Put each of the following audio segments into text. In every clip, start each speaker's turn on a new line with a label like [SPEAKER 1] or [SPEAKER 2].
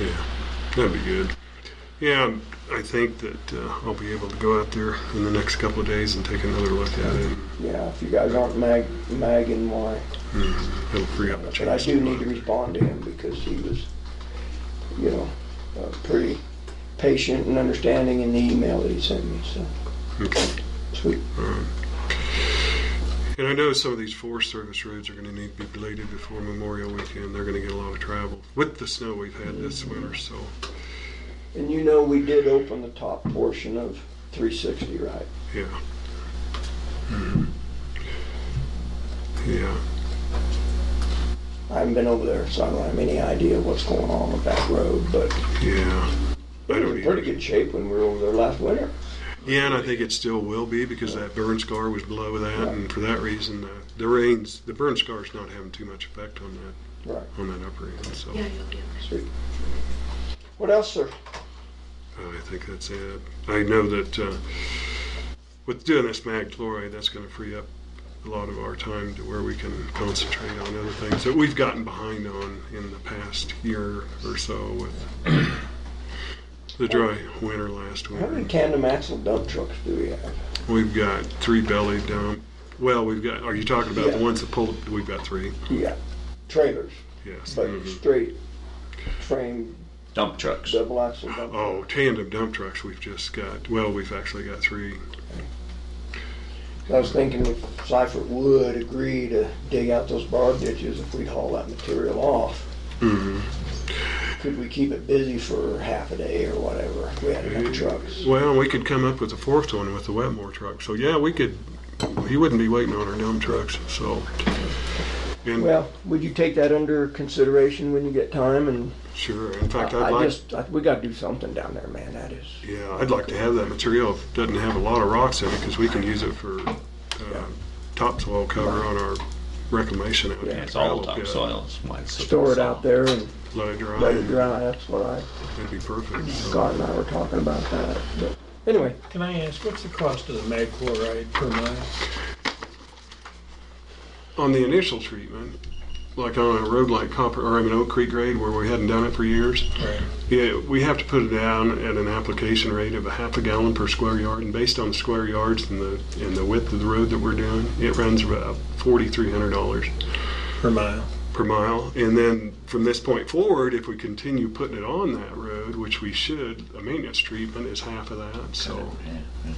[SPEAKER 1] Yeah, that'd be good. Yeah, I think that uh, I'll be able to go out there in the next couple of days and take another look at it.
[SPEAKER 2] Yeah, if you guys aren't mag, magging my,
[SPEAKER 1] It'll free up the
[SPEAKER 2] but I
[SPEAKER 1] chance.
[SPEAKER 2] do need to respond to him because he was, you know, uh, pretty patient and understanding in the email that he sent me, so,
[SPEAKER 1] Okay.
[SPEAKER 2] sweet.
[SPEAKER 1] And I know some of these Forest Service roads are going to need to be bladed before Memorial Weekend. They're going to get a lot of travel with the snow we've had this winter. So
[SPEAKER 2] And you know, we did open the top portion of three sixty, right?
[SPEAKER 1] yeah,
[SPEAKER 2] Hmm.
[SPEAKER 1] yeah.
[SPEAKER 2] I haven't been over there, so I don't have any idea what's going on with that road, but
[SPEAKER 1] Yeah. I
[SPEAKER 2] it was
[SPEAKER 1] don't
[SPEAKER 2] in pretty
[SPEAKER 1] either.
[SPEAKER 2] good shape when we were over there last winter.
[SPEAKER 1] Yeah, and I think it still will be because that burn scar was below that, and for that reason, uh, the rains, the burn scar's not having too much effect on that
[SPEAKER 2] Right.
[SPEAKER 1] on that upper end. So
[SPEAKER 3] Yeah, you'll be okay.
[SPEAKER 2] Sweet. What else, sir?
[SPEAKER 1] uh, I think that's it. I know that uh, with doing this mag chloride, that's going to free up a lot of our time to where we can concentrate on other things that we've gotten behind on in the past year or so with the dry winter last
[SPEAKER 2] How many
[SPEAKER 1] winter.
[SPEAKER 2] tandem axle dump trucks do we have?
[SPEAKER 1] We've got three belly dump. Well, we've got. Are you talking about the
[SPEAKER 2] Yeah.
[SPEAKER 1] ones that pull? We've got three.
[SPEAKER 2] Yeah, Mm-hmm. trailers,
[SPEAKER 1] Yes.
[SPEAKER 2] but
[SPEAKER 1] mhm.
[SPEAKER 2] straight frame
[SPEAKER 4] Dump trucks.
[SPEAKER 2] double axle dump.
[SPEAKER 1] Oh, tandem dump trucks. We've just got. Well, we've actually got three.
[SPEAKER 2] I was thinking if Seifert would agree to dig out those bar ditches if we'd haul that material off.
[SPEAKER 1] Mhm.
[SPEAKER 2] Could we keep it busy for half a day or whatever? if We had enough trucks.
[SPEAKER 1] Well, we could come up with a fourth one with the Wetmore truck. So yeah, we could. He wouldn't be waiting on our dump trucks. So. And
[SPEAKER 2] Well, would you take that under consideration when you get time? And
[SPEAKER 1] sure. In fact, I'd
[SPEAKER 2] I I
[SPEAKER 1] like.
[SPEAKER 2] just, I- we gotta do something down there, man, that is.
[SPEAKER 1] yeah, I'd like to have that material. If it doesn't have a lot of rocks in it, because we can use it for uh, topsoil cover on our reclamation out
[SPEAKER 2] Yeah,
[SPEAKER 1] there.
[SPEAKER 4] It's all
[SPEAKER 1] Gravel pit,
[SPEAKER 4] topsoil. It's why it's so
[SPEAKER 2] Store it
[SPEAKER 4] soft.
[SPEAKER 2] out there and
[SPEAKER 1] Let it dry.
[SPEAKER 2] let it dry, that's what I,
[SPEAKER 1] That'd be perfect. So-
[SPEAKER 2] Scott and I were talking about that, but anyway.
[SPEAKER 5] Can I ask, what's the cost of the mag chloride per mile?
[SPEAKER 1] on the initial treatment, like on a road like Copper, or I mean Oak Creek grade where we hadn't done it for years,
[SPEAKER 5] Right.
[SPEAKER 1] yeah, we have to put it down at an application rate of a half a gallon per square yard, and based on the square yards and the and the width of the road that we're doing, it runs about forty three hundred dollars
[SPEAKER 5] Per mile?
[SPEAKER 1] per mile. And then from this point forward, if we continue putting it on that road, which we should, a maintenance treatment is half of that. So
[SPEAKER 4] Yeah, yeah.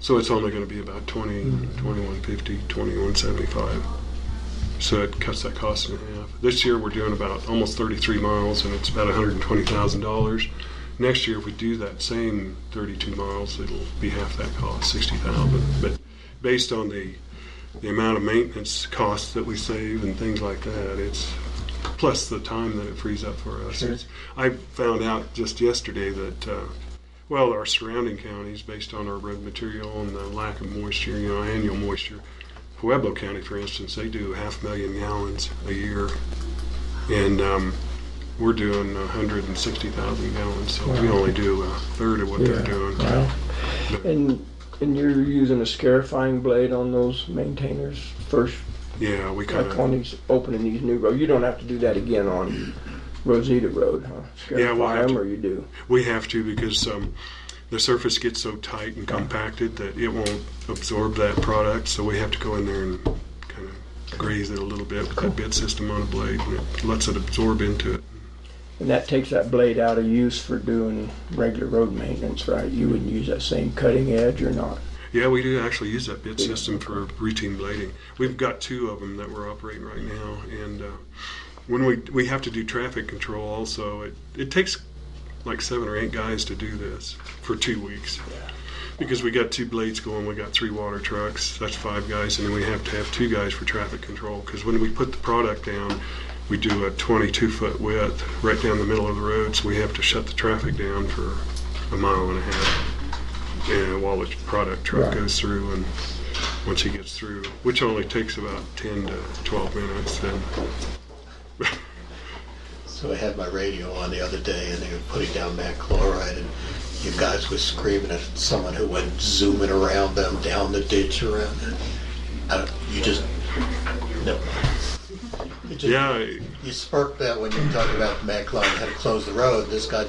[SPEAKER 1] so it's only going to be about 20, 2150, 2175. So it cuts that cost in half. This year we're doing about almost 33 miles and it's about $120,000. Next year, if we do that same 32 miles, it'll be half that cost, 60,000. But based on the the amount of maintenance costs that we save and things like that, it's plus the time that it frees up for us. It's- I found out just yesterday that uh, well, our surrounding counties, based on our road material and the lack of moisture, you know, annual moisture. Pueblo County, for instance, they do half a million gallons a year, and um, we're doing 160,000 gallons, so we only do a third of what they're doing.
[SPEAKER 2] And, and you're using a scarifying blade on those maintainers first,
[SPEAKER 1] Yeah, we kind
[SPEAKER 2] like
[SPEAKER 1] of.
[SPEAKER 2] on these, opening these new roads? You don't have to do that again on Rosita Road, huh?
[SPEAKER 1] Yeah, we'll have
[SPEAKER 2] Scarify 'em,
[SPEAKER 1] to.
[SPEAKER 2] or you do?
[SPEAKER 1] We have to because um, the surface gets so tight and compacted that it won't absorb that product. So we have to go in there and kind of graze it a little bit with that bit system on a blade, and it lets it absorb into it.
[SPEAKER 2] And that takes that blade out of use for doing regular road maintenance, right? You wouldn't use that same cutting edge or not?
[SPEAKER 1] Yeah, we do actually use that bit system for routine blading. We've got two of them that we're operating right now, and uh, when we we have to do traffic control also, it it takes like seven or eight guys to do this for two weeks. Because we got two blades going, we got three water trucks, that's five guys, and then we have to have two guys for traffic control. Because when we put the product down, we do a 22 foot width right down the middle of the road, so we have to shut the traffic down for a mile and a half. And while the product truck
[SPEAKER 2] Right.
[SPEAKER 1] goes through, and once he gets through, which only takes about 10 to 12 minutes, then
[SPEAKER 6] So I had my radio on the other day and they were putting down mag chloride and you guys were screaming at someone who went zooming around them, down the ditch around it. I don't, you just, no. It just-
[SPEAKER 1] Yeah,
[SPEAKER 6] you sparked that when you talked about Matt Klein had to close the road. This guy